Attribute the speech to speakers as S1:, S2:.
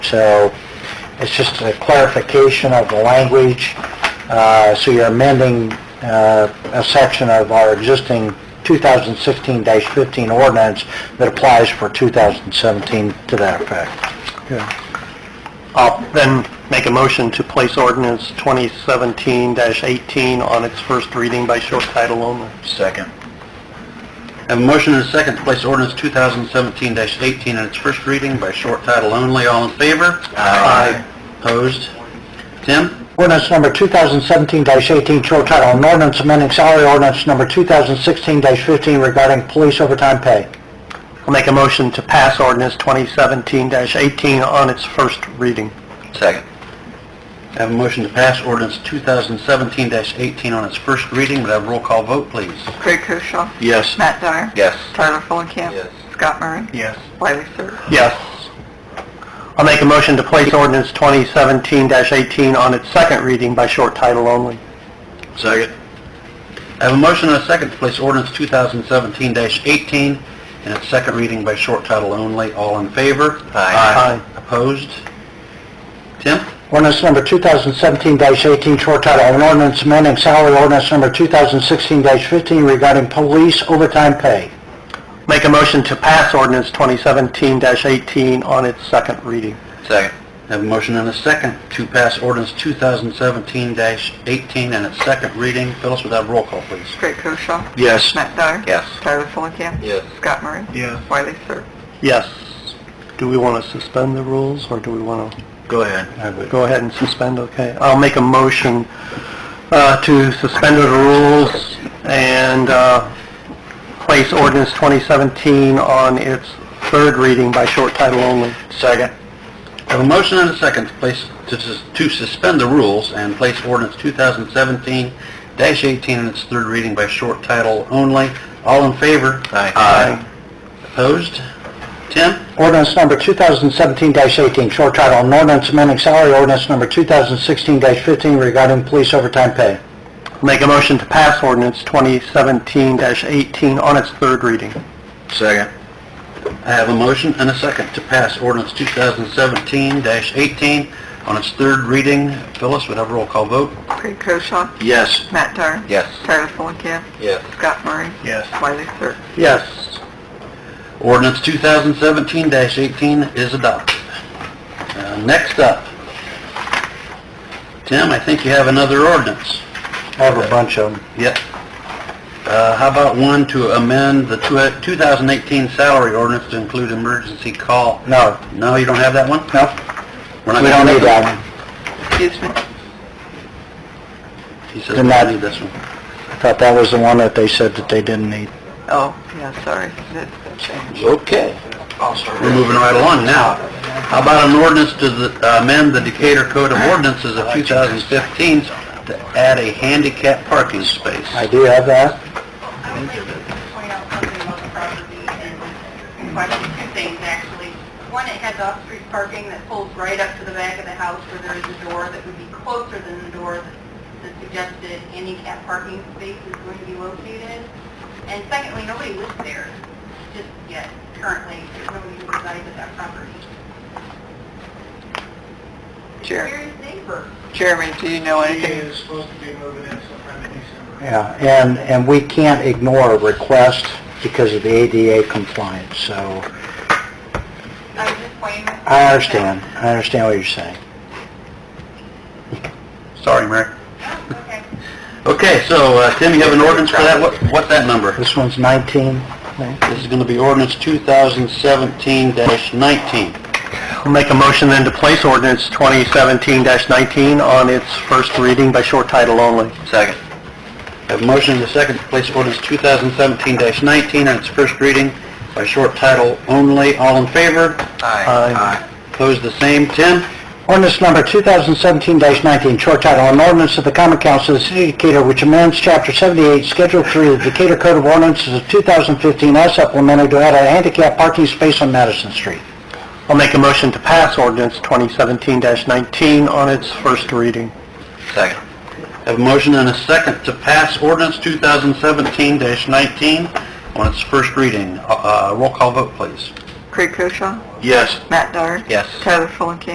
S1: So it's just a clarification of the language. Uh, So you're amending uh, a section of our existing 2016-15 ordinance that applies for 2017 to that effect.
S2: I'll then make a motion to place ordinance 2017-18 on its first reading by short title only.
S1: Second.
S3: Have a motion and a second to place ordinance 2017-18 in its first reading by short title only. All in favor?
S1: Aye.
S3: Opposed? Tim?
S1: Ordinance number 2017-18, short title, an ordinance amending salary ordinance number 2016-15 regarding police overtime pay.
S2: I'll make a motion to pass ordinance 2017-18 on its first reading.
S3: Second. Have a motion to pass ordinance 2017-18 on its first reading. Would have a roll call vote, please?
S4: Craig Koshaw.
S3: Yes.
S4: Matt Dyer.
S3: Yes.
S4: Tyler Fulenkamp.
S3: Yes.
S4: Scott Murray.
S2: Yes.
S4: Wiley Sir.
S2: Yes. I'll make a motion to place ordinance 2017-18 on its second reading by short title only.
S3: Second. I have a motion and a second to place ordinance 2017-18 in its second reading by short title only. All in favor?
S2: Aye.
S3: Opposed? Tim?
S1: Ordinance number 2017-18, short title, an ordinance amending salary ordinance number 2016-15 regarding police overtime pay.
S2: Make a motion to pass ordinance 2017-18 on its second reading.
S3: Second. I have a motion and a second to pass ordinance 2017-18 in its second reading. Phyllis, would have roll call, please?
S4: Craig Koshaw.
S3: Yes.
S4: Matt Dyer.
S3: Yes.
S4: Tyler Fulenkamp.
S3: Yes.
S4: Scott Murray.
S2: Yes.
S4: Wiley Sir.
S2: Yes. Do we want to suspend the rules, or do we want to
S3: Go ahead.
S2: go ahead and suspend? Okay. I'll make a motion uh, to suspend the rules and uh, place ordinance 2017 on its third reading by short title only.
S3: Second. I have a motion and a second to place, to sus- to suspend the rules and place ordinance 2017-18 in its third reading by short title only. All in favor? Aye. Opposed? Tim?
S1: Ordinance number 2017-18, short title, an ordinance amending salary ordinance number 2016-15 regarding police overtime pay.
S2: Make a motion to pass ordinance 2017-18 on its third reading.
S3: Second. I have a motion and a second to pass ordinance 2017-18 on its third reading. Phyllis, would have a roll call vote?
S4: Craig Koshaw.
S3: Yes.
S4: Matt Dyer.
S3: Yes.
S4: Tyler Fulenkamp.
S3: Yes.
S4: Scott Murray.
S2: Yes.
S4: Wiley Sir.
S2: Yes.
S3: Ordinance 2017-18 is adopted. Uh, Next up, Tim, I think you have another ordinance.
S1: I have a bunch of them.
S3: Yep. Uh, How about one to amend the tw- 2018 salary ordinance to include emergency call?
S1: No,
S3: No, you don't have that one?
S1: no,
S3: We're not
S1: we don't
S3: gonna-
S1: need that one.
S4: Excuse me.
S3: He says
S1: Did
S3: we
S1: not-
S3: don't need this one.
S1: I thought that was the one that they said that they didn't need.
S4: Oh, yeah, sorry. That's the change.
S3: Okay. We're moving right along now. How about an ordinance to the- uh, amend the Decatur Code of Ordinances of 2015 to add a handicap parking space?
S1: I do have that.
S5: point out something about the property and question two things, actually. One, it has off-street parking that pulls right up to the back of the house where there is a door that would be closer than the door that the suggested handicap parking space is going to be located. And secondly, nobody lives there just yet, currently. There's nobody who resides at that property.
S4: Jer-
S5: Where is neighbor?
S4: Jeremy, do you know anything?
S6: is supposed to be moving in sometime in December.
S1: Yeah, and, and we can't ignore a request because of the ADA compliance, so
S5: I was just pointing.
S1: I understand. I understand what you're saying.
S3: Sorry, Mary.
S5: Oh, okay.
S3: Okay, so, uh, Tim, you have an ordinance for that? What, what's that number?
S1: This one's 19, I think.
S3: This is gonna be ordinance 2017-19.
S2: I'll make a motion then to place ordinance 2017-19 on its first reading by short title only.
S3: Second. I have a motion and a second to place ordinance 2017-19 on its first reading by short title only. All in favor?
S2: Aye.
S3: Opposed, the same. Tim?
S1: Ordinance number 2017-19, short title, an ordinance of the common council of the city of Decatur which amends chapter 78, schedule 3 of the Decatur Code of Ordinances of 2015 as supplemented to add a handicap parking space on Madison Street.
S2: I'll make a motion to pass ordinance 2017-19 on its first reading.
S3: Second. Have a motion and a second to pass ordinance 2017-19 on its first reading. Uh, uh, Roll call vote, please.
S4: Craig Koshaw.
S3: Yes.
S4: Matt Dyer.
S3: Yes.
S4: Tyler Fulenkamp.